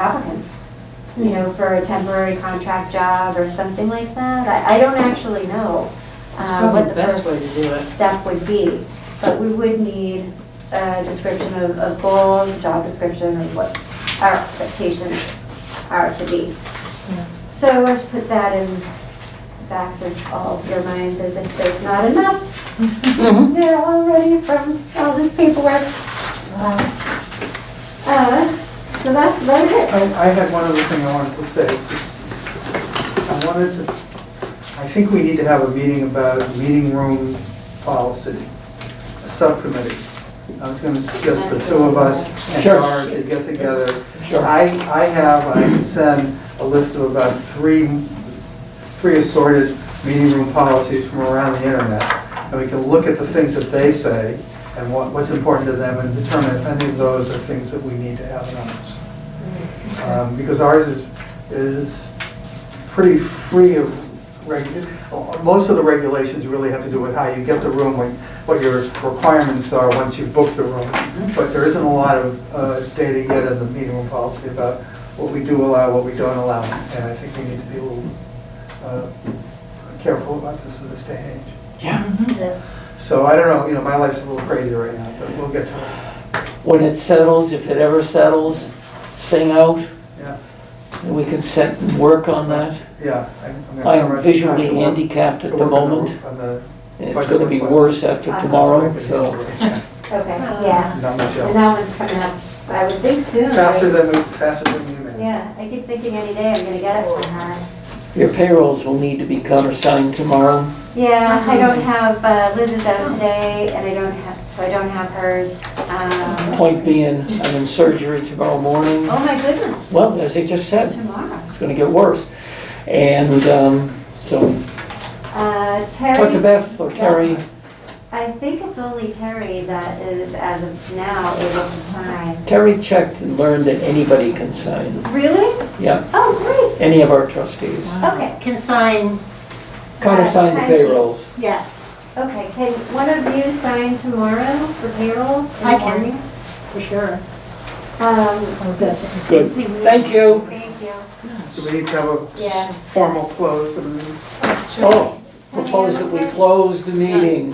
applicants, you know, for a temporary contract job or something like that. I, I don't actually know uh, Probably what the the best way first to do it. step would be, but we would need a description of, of goals, a job description of what our expectations are to be. Yeah. So I want to put that in the backs of all of your minds as if there's not enough Mm-hmm. there already from all this paperwork. Uh, So that's about it. I, I had one other thing I wanted to say. Just- I wanted to, I think we need to have a meeting about meeting room policy, a subcommittee. I was gonna suggest the two of us and Sure. Gar to get together. Sure. I, I have, I can send a list of about three, three assorted meeting room policies from around the internet. And we can look at the things that they say and what, what's important to them and determine if any of those are things that we need to have in ours um, because ours is, is pretty free of, reg- most of the regulations really have to do with how you get the room, what- what your requirements are once you book the room. But there isn't a lot of uh, data yet in the meeting room policy about what we do allow, what we don't allow. And I think we need to be a little uh, careful about this in this day and age. So I don't know, you know, my life's a little crazy right now, but we'll get to it. When it settles, if it ever settles, sing out, Yeah, and we can set, and work on that. yeah. I'm- I'm gonna- I'm visually to work- handicapped to at the work on the- moment, on the and it's gonna be worse after tomorrow, so. Okay, yeah. Not And Michelle. that one's coming up, I would think soon. right? Faster than, we- faster than you man. Yeah, I keep thinking any day I'm gonna get it from her. Your payrolls will need to be countersigned tomorrow. Yeah, I don't have, uh, Liz is out today, and I don't have, so I don't have hers. Um, Point being, I'm in surgery tomorrow morning. Oh, my goodness, Well, as I just said, tomorrow. it's gonna get worse. And, um, so, Uh, talk to Terry, Beth or Terry. I think it's only Terry that is, as of now, able to sign. Terry checked and learned that anybody can sign, Really? yeah, Oh, great. any of our trustees. Okay, Can sign, Countersign the Timesheets. payrolls. yes, okay, can one of you sign tomorrow for payroll? in the I can. morning? for sure. Um, Good, thank you. thank you. Do we need to have a Yeah. formal close and Oh, propose that we close the meeting